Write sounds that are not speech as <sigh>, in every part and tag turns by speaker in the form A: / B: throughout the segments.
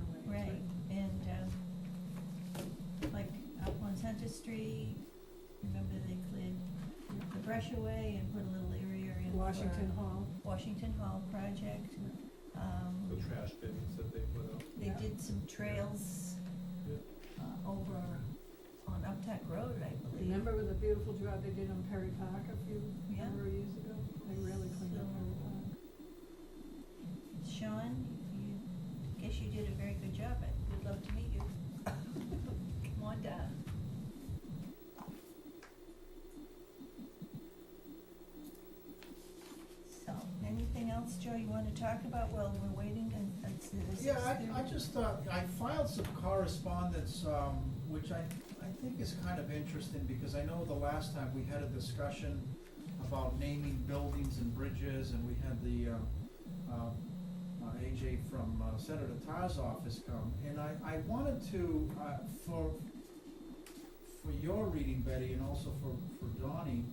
A: um, Registry, remember they cleared the brush away and put a little area in for
B: Washington Hall.
A: Washington Hall project.
C: the
A: Um,
C: trash bins that they put up.
A: they did some trails
C: Yeah.
A: uh, over on Uptack Road, I believe.
B: Remember with the beautiful job they did on Perry Park a few,
A: Yeah.
B: number of years ago? They really cleaned up Perry Park.
A: Sean, you, guess you did a very good job. I would love to meet you. Come on down. So, anything else, Joe, you wanna talk about while we're waiting and, and s- this is
D: Yeah,
A: there-
D: I, I just, uh, I filed some correspondence, um, which I, I think is kind of interesting, because I know the last time we had a discussion about naming buildings and bridges, and we had the, uh, um, uh, AJ from uh, Senator Tar's office come, and I, I wanted to, uh, for, for your reading, Betty, and also for, for Donnie,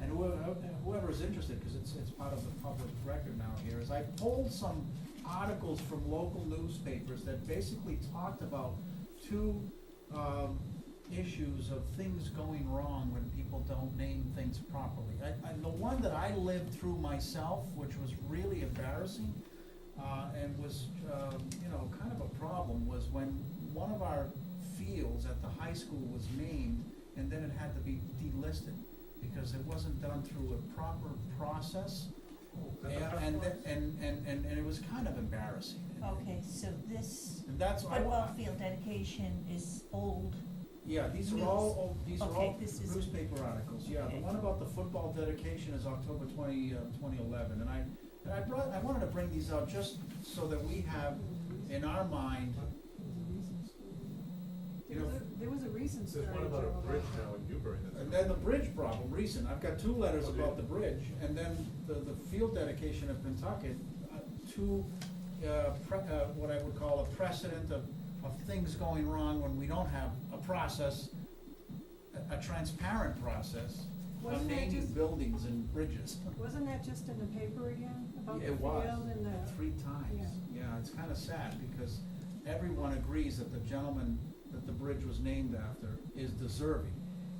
D: and whoever, whoever's interested, because it's, it's part of the public record now here, is I pulled some articles from local newspapers that basically talked about two, um, issues of things going wrong when people don't name things properly. I, I, the one that I lived through myself, which was really embarrassing, uh, and was, um, you know, kind of a problem, was when one of our fields at the high school was named, and then it had to be delisted, because it wasn't done through a proper process. Yeah, and, th- and, and, and, and it was kind of embarrassing.
A: Okay, so this
D: And that's, I,
A: football field dedication is old.
D: yeah, these are all, old- these are
A: Okay,
D: all
A: this is-
D: newspaper articles, yeah, the
A: Okay.
D: one about the football dedication is October twenty, uh, twenty eleven, and I, and I brought, I wanted to bring these out just so that we have in our mind,
B: There was a, there was a recent story.
C: There's one about
B: Joe,
C: a bridge now in Newbury
D: and
C: that's.
D: then the bridge problem, recent, I've got two letters about the bridge, and then the, the field dedication of Pentucket, uh, two, uh, pre- uh, what I would call a precedent of, of things going wrong when we don't have a process, a, a transparent process of
B: Wasn't that
D: naming
B: just,
D: buildings and bridges.
B: wasn't that just in the paper again, about the
D: It was,
B: field and the?
D: three times. Yeah, it's kind of sad because everyone agrees that the gentleman that the bridge was named after is deserving.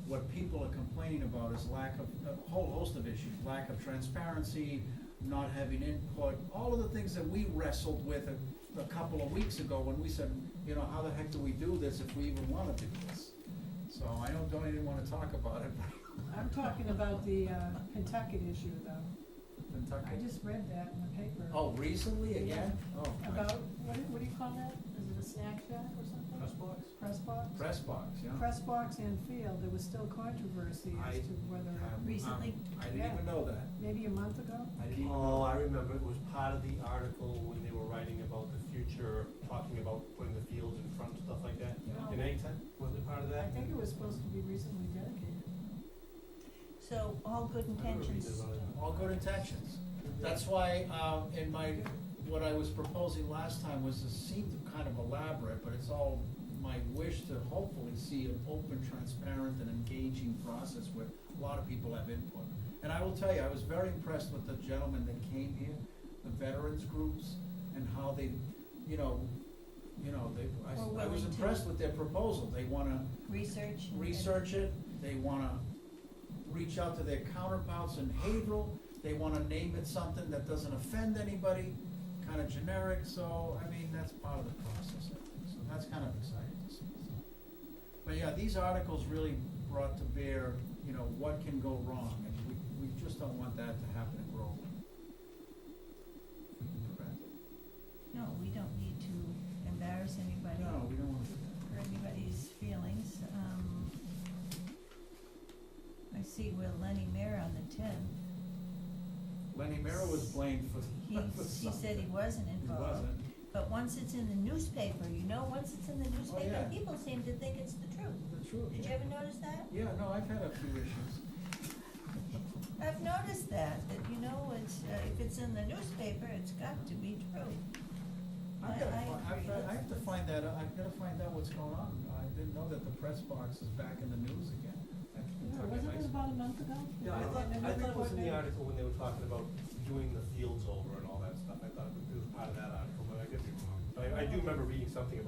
D: What people are complaining about is lack of, a whole host of issues, lack of transparency, not having input, all of the things that we wrestled with a, a couple of weeks ago when we said, you know, how the heck do we do this if we even want to do this? So I know Donnie didn't want to talk about it, <laughs>
B: I'm talking about the, uh, Pentucket issue though.
D: but
B: I
D: Kentucky.
B: just read that in the paper.
D: Oh, recently again? Oh, my-
B: About, what, do- what do you call that? Is it a snack shack or something?
C: Press box?
B: Press box?
D: Press box, yeah.
B: Press box and field, there was still controversy
D: I-
B: as to whether,
D: Um,
A: Recently?
D: um, I didn't even know that.
B: maybe a month ago?
D: I didn't even,
E: Oh, I remember, it was part of the article when they were writing about the future, talking about putting the fields in front and stuff like that.
B: No.
E: And anytime, wasn't Oh. it part of
B: I
E: that?
B: think it was supposed to be recently dedicated.
A: So, all good
E: I remember reading
A: intentions.
E: about it.
D: all good intentions. That's why, um, in my, what I was proposing last time was, it seemed kind of elaborate, but it's all my wish to hopefully see an open, transparent, and engaging process where a lot of people have input. And I will tell you, I was very impressed with the gentlemen that came here, the veterans groups, and how they, you know, you know, they, I-
A: Were
D: I
A: willing
D: was
A: to-
D: impressed with their proposal. They wanna,
A: Research. and-
D: research it, they wanna reach out to their counterparts in Haverhill, they wanna name it something that doesn't offend anybody, kinda generic, so, I mean, that's part of the process, I think, so that's kind of exciting to see, so. But yeah, these articles really brought to bear, you know, what can go wrong, and we, we just don't want that to happen in Groveland. If we can prevent it.
A: No, we don't need to embarrass anybody.
D: No, we don't wanna do
A: for anybody's feelings. Um, I see where Lenny Mayer on the tenth,
D: that. Lenny Mara was blamed <laughs> for.
A: he, he said he wasn't
D: He
A: involved.
D: wasn't,
A: But once it's in the newspaper, you know, once it's in the newspaper,
D: Oh, yeah.
A: people seem to think it's the truth.
D: the truth,
A: Did you ever notice that?
D: Yeah, no, I've had a few issues.
A: I've noticed that, that, you know, it's, uh, if it's in the newspaper, it's got to be true. I-
D: I've gotta,
A: I
D: fi- I've
A: agree.
D: got- I have to find that, out. I've gotta find out what's going on. I didn't know that the press box is back in the news again. That's
B: Yeah,
D: Kentucky
B: wasn't it
D: High School.
B: about a month ago?
E: Yeah, I thought,
B: And then
E: I thought it was in the
B: report-
E: article when they were talking about doing the fields over and all that stuff, I thought it was part of that article, but I could be wrong. But I, I do remember reading something about